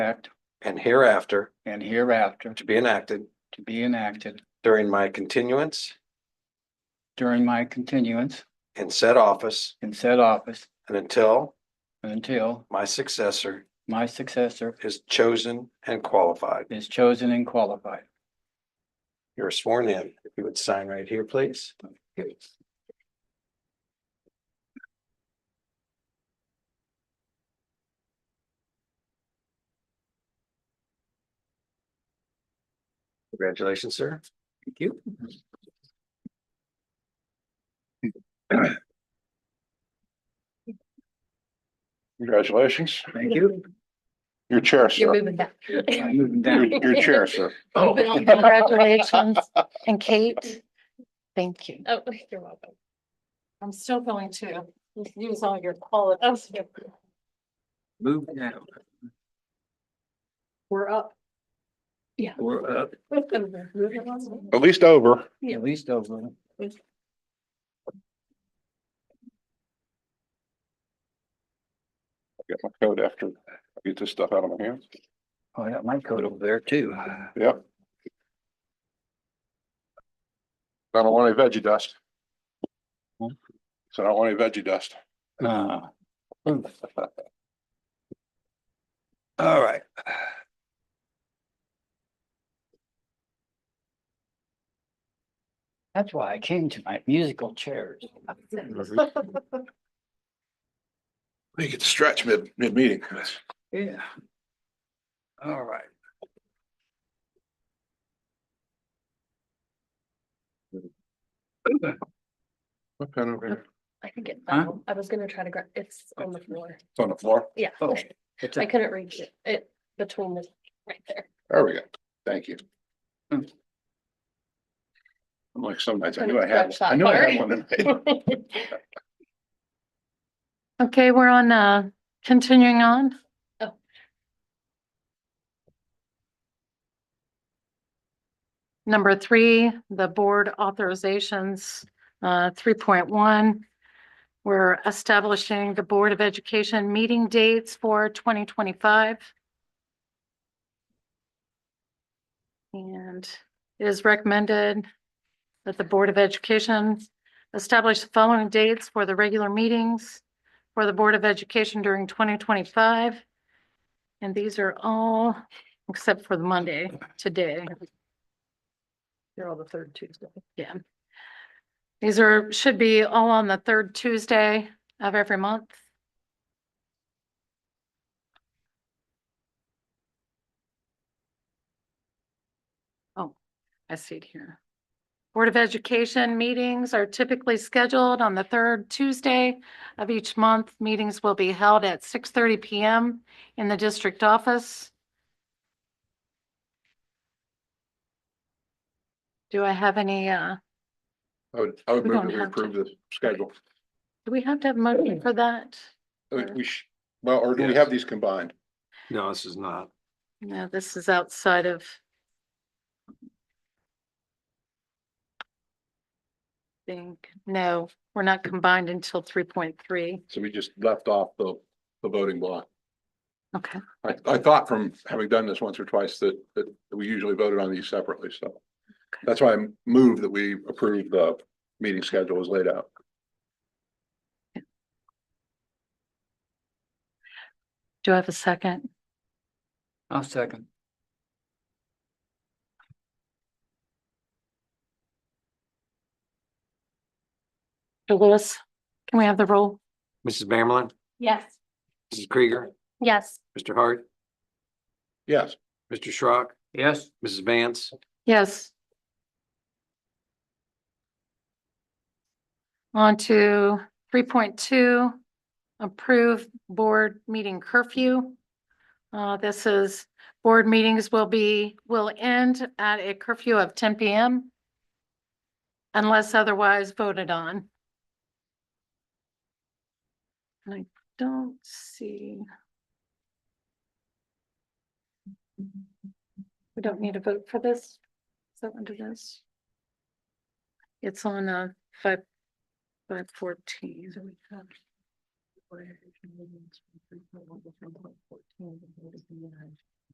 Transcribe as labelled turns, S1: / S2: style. S1: act
S2: and hereafter
S1: and hereafter
S2: to be enacted
S1: to be enacted
S2: during my continuance
S1: during my continuance
S2: in said office
S1: in said office
S2: and until
S1: until
S2: my successor
S1: my successor
S2: is chosen and qualified.
S1: is chosen and qualified.
S2: You're sworn in. If you would sign right here, please. Congratulations, sir.
S1: Thank you.
S3: Congratulations.
S1: Thank you.
S3: Your chair,
S4: You're
S3: sir.
S4: moving back.
S1: I'm moving
S3: Your
S1: down.
S3: your chair, sir.
S5: Oh.
S6: Congratulations. And Kate, thank you.
S4: Oh, you're welcome. I'm still going to use all your oh, qualities.
S1: Move down.
S4: We're up.
S1: We're up.
S4: Yeah.
S3: At least over.
S1: At least over.
S3: Get my coat after I get this stuff out of my hands.
S1: Oh, I got my coat over there too.
S3: Yep. I don't want any veggie dust.
S1: Hmm?
S3: So I don't want any veggie dust.
S1: Uh,
S2: All right.
S1: that's why I came to my musical chairs.
S3: You get to stretch mid, mid-meeting.
S1: Yeah.
S2: All right.
S3: My pen over here.
S4: I can get
S1: Huh?
S4: that. one. I was gonna try to grab, it's on the floor.
S3: It's on the floor.
S4: Yeah,
S1: Oh,
S4: I couldn't reach it. It between the, right there.
S3: There we go. Thank you.
S1: Hmm.
S3: I'm like some nights, I
S4: Couldn't
S3: knew I had,
S4: stretch that
S3: I knew I had
S4: far.
S3: one tonight.
S6: Okay, we're on, uh, continuing on.
S4: Oh.
S6: Number three, the board authorizations, uh, three point one. We're establishing the Board of Education meeting dates for twenty twenty-five. And it is recommended that the Board of Education establish the following dates for the regular meetings for the Board of Education during twenty twenty-five. And these are all, except for the Monday, today.
S4: You're on the third Tuesday.
S6: Yeah. These are, should be all on the third Tuesday of every month. Oh, I see it here. Board of Education meetings are typically scheduled on the third Tuesday of each month. Meetings will be held at six thirty PM in the district office. Do I have any, uh,
S3: I would, I would
S6: We
S3: move
S6: don't
S3: that we
S6: have to.
S3: approve the schedule.
S6: do we have to have a motion for that?
S3: I think
S6: Sure.
S3: We sh well, or do we
S2: Yes.
S3: have these combined?
S2: No, this is not.
S6: No, this is outside of. Think, no, we're not combined until three point three.
S3: So we just left off the, the voting block.
S6: Okay,
S3: I, I thought from having done this once or twice that, that we usually voted on these separately, so. That's why I move that we approve the meeting schedule as laid out.
S6: do I have a second?
S1: I'll second.
S6: Mr. Lewis, can we have the roll?
S2: Mrs. Bamerlin,
S4: Yes.
S2: Mrs. Krieger,
S6: Yes.
S2: Mr. Hart,
S3: Yes,
S2: Mr. Schrock,
S1: Yes,
S2: Mrs. Vance.
S6: Yes. On to three point two, approve board meeting curfew. Uh, this is, board meetings will be, will end at a curfew of ten PM unless otherwise voted on. And I don't see. We don't need a vote for this. Is that under this? It's on uh five, five fourteen. Three point one to three point fourteen.